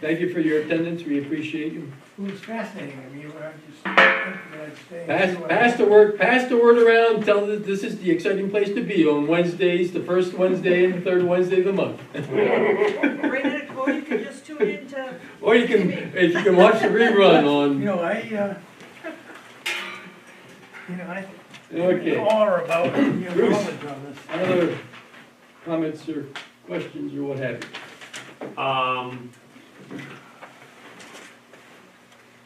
Thank you for your attendance, we appreciate you. It was fascinating, I mean, when I just, when I'd stay. Pass, pass the word, pass the word around, tell that this is the exciting place to be on Wednesdays, the first Wednesday and the third Wednesday of the month. Bring it, or you can just tune in to, Or you can, if you can watch the rerun You on, know, I, uh, you know, I, in okay. awe about your Bruce. knowledge on this. Other comments or questions or what have you? Um,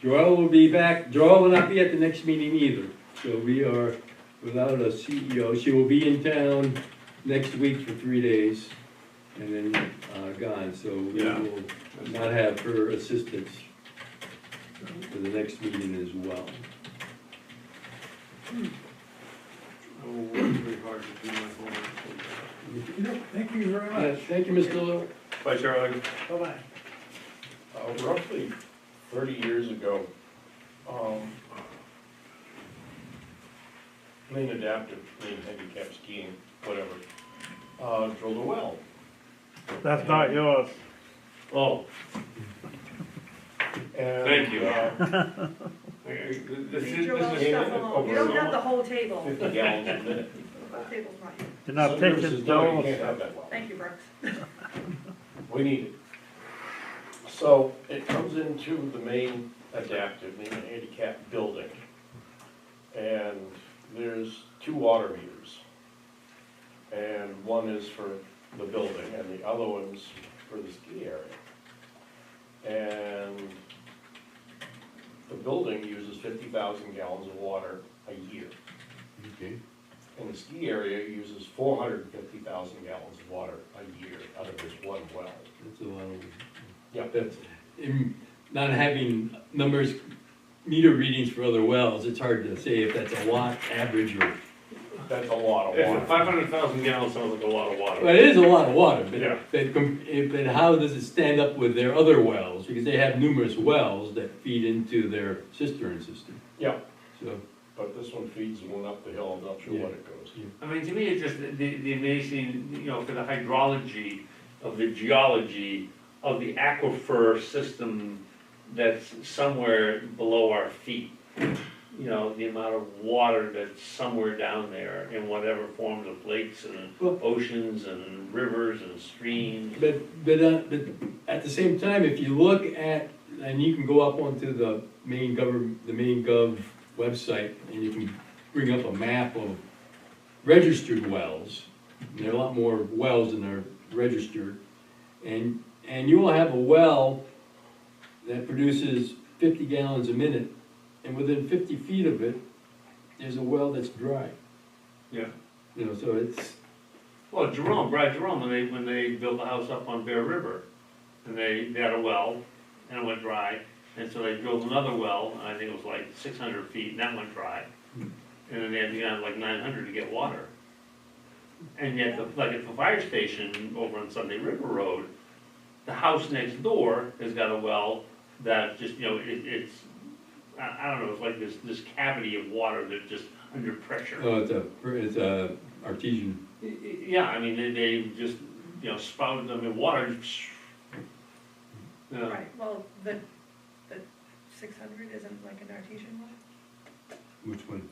Joel will be back, Joel will not be at the next meeting either, so we are without a CEO. She will be in town next week for three days and then, uh, gone, so we Yeah. will not have her assistance for the next meeting as well. oh, it was very hard to do my homework. No, Thank you very Uh, much, Thank you, Mr. Little. Bye, Charlie. bye-bye. Uh, roughly thirty years ago, um, Lane Adaptive, Lane Handicap Skiing, whatever, uh, drilled a well. That's not yours. Oh. Thank you. uh, This leave your little yeah, stuff alone, you don't have the whole table, Fifty gallons a minute. the whole table's not here, You're not Some years taking is no, you those. can't have that well. thank you, Brooks. We need it. So it comes into the main adaptive, main handicap building. And there's two water meters. And one is for the building and the other one's for the ski area. And the building uses fifty thousand gallons of water a year. Okay. And the ski area uses four hundred and fifty thousand gallons of water a year out of this one well. That's a lot of, Yeah, that's, in not having numbers, meter readings for other wells, it's hard to say if that's a watt average or. That's a lot of If water. five hundred thousand gallons sounds like a lot of water. Well, it is a lot of water, Yeah. but, but, com- if- but how does it stand up with their other wells? Because they have numerous wells that feed into their cistern system, Yeah, so. but this one feeds the one up the hill, I'm not sure what it goes. I mean, to me, it's just the, the amazing, you know, for the hydrology of the geology of the aquifer system that's somewhere below our feet. You know, the amount of water that's somewhere down there in whatever forms of lakes and Well- oceans and rivers and streams. But, but, uh, but at the same time, if you look at, and you can go up onto the main government, the main gov website, and you can bring up a map of registered wells, and there are a lot more wells than are registered, and, and you will have a well that produces fifty gallons a minute, and within fifty feet of it, there's a well that's dry. Yeah. You know, so it's, Well, Jerome, Brad Jerome, when they, when they built the house up on Bear River, and they, they had a well, and it went dry, and so they drilled another well, and I think it was like six hundred feet, and that went dry. And then they had to get like nine hundred to get water. And yet, the- like at the fire station over on Sunday River Road, the house next door has got a well that just, you know, it, it's, I, I don't know, it's like this, this cavity of water that just under pressure. oh, it's a, it's a artesian Y- y- Yeah, I mean, they, they just, you know, spouted them in water. Yeah. Right, well, the, the six hundred isn't like an artesian one, Which one?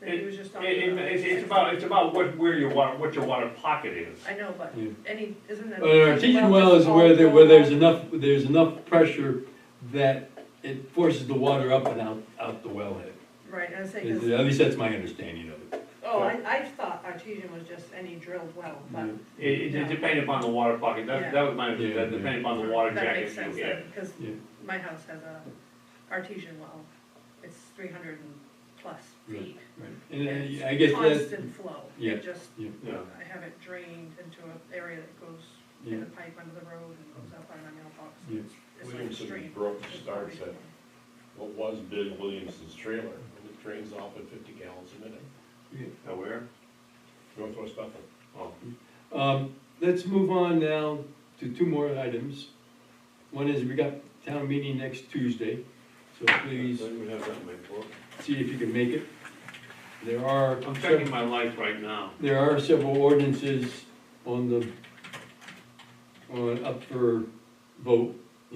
that he was just It, talking it, about. it's, it's about, it's about what, where your water, what your water pocket is. I know, but Yeah. any, isn't that? An artesian Uh, well is just where all there, where there's full? enough, there's enough pressure that it forces the water up and out, out the wellhead. Right, I was saying, 'cause- At least that's my understanding of it. oh, I, I thought artesian was just any drilled well, but It, it depended upon the water pocket, Yeah. that, that was my, Yeah, that depended upon the water that jacket makes you sense get. then, cause Yeah. my house has a artesian well, it's three hundred and plus Right. feet. Right. And uh, It's I- I guess that's, Constant flow, Yeah. it just, yeah, Yeah. I have it drained into an area that goes yeah, in the pipe under the road and goes up on my mailbox. Yeah. It's like a Williamson stream. Brook starts at what was Big Williamson's trailer, and it drains off at fifty gallons a minute, Now where? northwest Bethel. Oh, Um, let's move on now to two more items. One is we got town meeting next Tuesday, so please I didn't even have that in my book. see if you can make it. There are. I'm checking my life right now. There are several ordinances on the, on, up for vote,